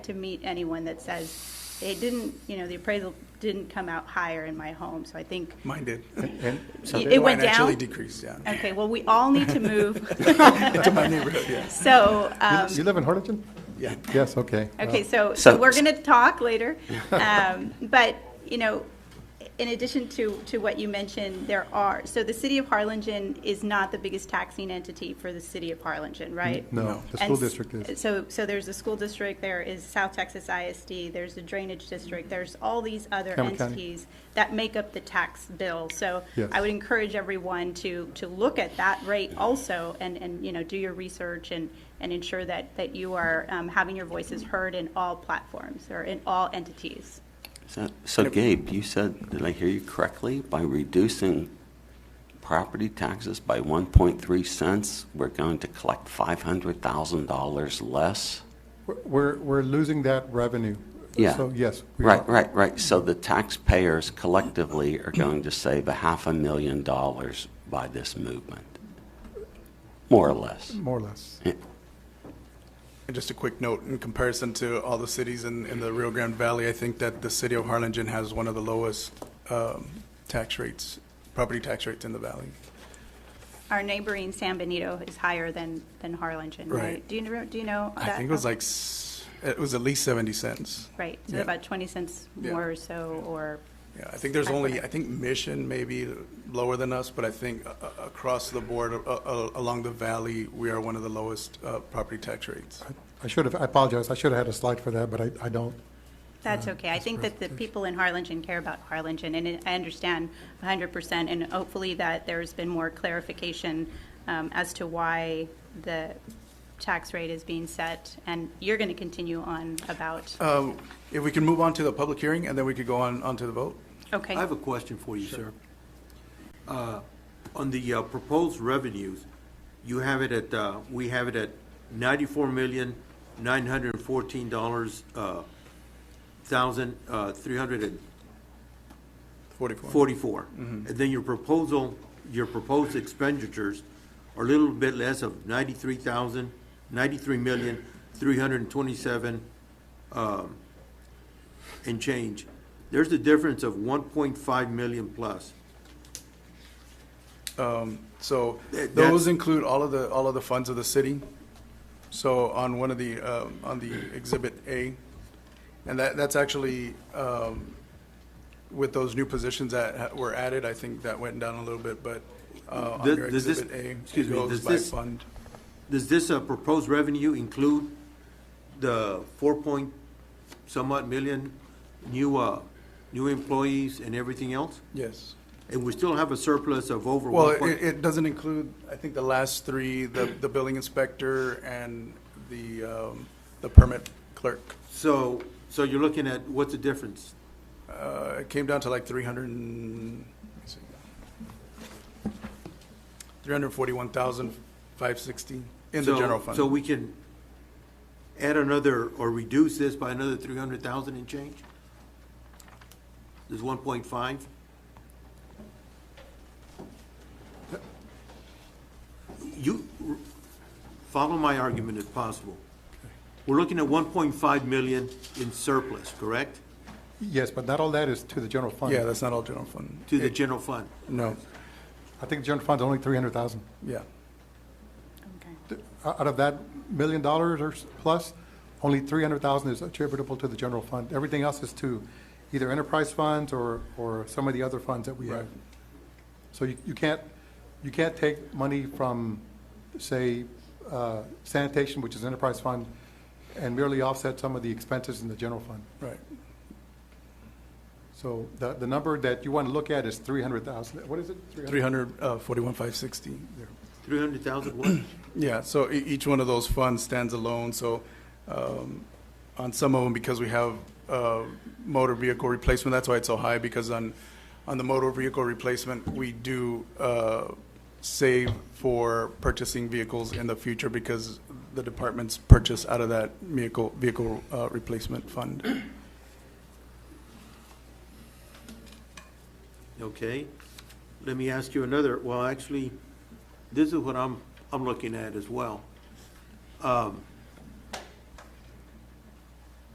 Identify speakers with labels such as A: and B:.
A: to meet anyone that says, it didn't, you know, the appraisal didn't come out higher in my home, so I think,
B: Mine did.
C: And so
A: it went
B: Mine actually
A: down?
B: decreased, yeah.
A: Okay, well, we all need to move,
B: To my neighborhood, yes,
A: so, um,
C: You live in Harlingen?
B: yeah.
C: Yes, okay. Uh,
A: Okay, so,
D: So-
A: so we're going to talk later. Um, But, you know, in addition to, to what you mentioned, there are, so the city of Harlingen is not the biggest taxing entity for the city of Harlingen, right?
C: No, the school
A: And s-
C: district is.
A: So, so there's a school district, there is South Texas ISD, there's a drainage district, there's all these other
C: Cameron County.
A: entities that make up the tax bill. So
C: Yes.
A: I would encourage everyone to, to look at that rate also and, and, you know, do your research and, and ensure that, that you are um, having your voices heard in all platforms or in all entities.
D: So- So Gabe, you said, did I hear you correctly? By reducing property taxes by 1.3 cents, we're going to collect $500,000 less?
C: We're- We're, we're losing that revenue.
D: Yeah.
C: So, yes. we
D: Right,
C: are.
D: right, right. So the taxpayers collectively are going to save a half a million dollars by this movement, more or less.
C: More or less.
D: Yeah.
B: And just a quick note, in comparison to all the cities in, in the Rio Grande Valley, I think that the city of Harlingen has one of the lowest um, tax rates, property tax rates in the valley.
A: Our neighboring San Benito is higher than, than Harlingen, right?
B: Right.
A: Do you, know- do you know?
B: I
A: that?
B: think it was like, s- it was at least 70 cents.
A: Right, so
B: yeah.
A: about 20 cents
B: Yeah.
A: more or so, or
B: Yeah, I think there's only, I think Mission may be lower than us, but I think uh, uh, across the board, uh, uh, along the valley, we are one of the lowest uh, property tax rates.
C: I should have, I apologize, I should have had a slide for that, but I, I don't.
A: That's okay. I think that the people in Harlingen care about Harlingen, and it- I understand 100%, and hopefully that there's been more clarification um, as to why the tax rate is being set, and you're going to continue on about,
E: Uh,
B: Um, If we can move on to the public hearing, and then we could go on, on to the vote?
A: okay.
E: I have a question for you, sir. Uh, On the uh, proposed revenues, you have it at, uh, we have it at ninety-four million, nine hundred and fourteen dollars, uh, thousand, uh, three hundred and
B: 44.
E: forty-four. And then your proposal, your proposed expenditures are a little bit less of ninety-three thousand, ninety-three million, three hundred and twenty-seven, um, and change. There's a difference of one point five million plus.
B: So
E: Th-
B: those
E: that's-
B: include all of the, all of the funds of the city. So on one of the, um, on the Exhibit A, and that, that's actually, um, with those new positions that ha- were added, I think that went down a little bit, but uh,
E: Th-
B: under
E: does this-
B: Exhibit A,
E: excuse
B: it
E: me,
B: goes
E: does
B: by
E: this-
B: fund.
E: Does this uh, proposed revenue include the four point somewhat million new, uh, new employees and everything else?
B: Yes.
E: And we still have a surplus of over
B: Well,
E: one
B: it,
E: point?
B: it doesn't include, I think, the last three, the, the billing inspector and the, um, the permit clerk.
E: So, so you're looking at, what's the difference?
B: Uh, it came down to like three hundred and, let me see. Three hundred forty-one thousand, five sixty in the
E: So-
B: general fund.
E: So we can add another, or reduce this by another three hundred thousand and change? There's one point five? You, follow my argument if possible. We're looking at one point five million in surplus, correct?
C: Yes, but not all that is to the general fund.
B: Yeah, that's not all general fund.
E: To the general fund?
B: No,
C: I think the general fund's only 300,000.
B: yeah.
A: Okay.
C: Out of that million dollars or s- plus, only 300,000 is attributable to the general fund. Everything else is to either enterprise funds or, or some of the other funds that we have.
B: Right.
C: So you, you can't, you can't take money from, say, uh, sanitation, which is enterprise fund, and merely offset some of the expenses in the general fund.
B: Right.
C: So the, the number that you want to look at is 300,000. What is it? 300,000?
B: Three hundred, uh, forty-one, five sixty there.
E: Three hundred thousand what?
B: Yeah, so e- each one of those funds stands alone, so um, on some of them, because we have uh, motor vehicle replacement, that's why it's so high, because on, on the motor vehicle replacement, we do uh, save for purchasing vehicles in the future because the departments purchase out of that vehicle, vehicle uh, replacement fund.
E: Okay, let me ask you another, well, actually, this is what I'm, I'm looking at as well. Um,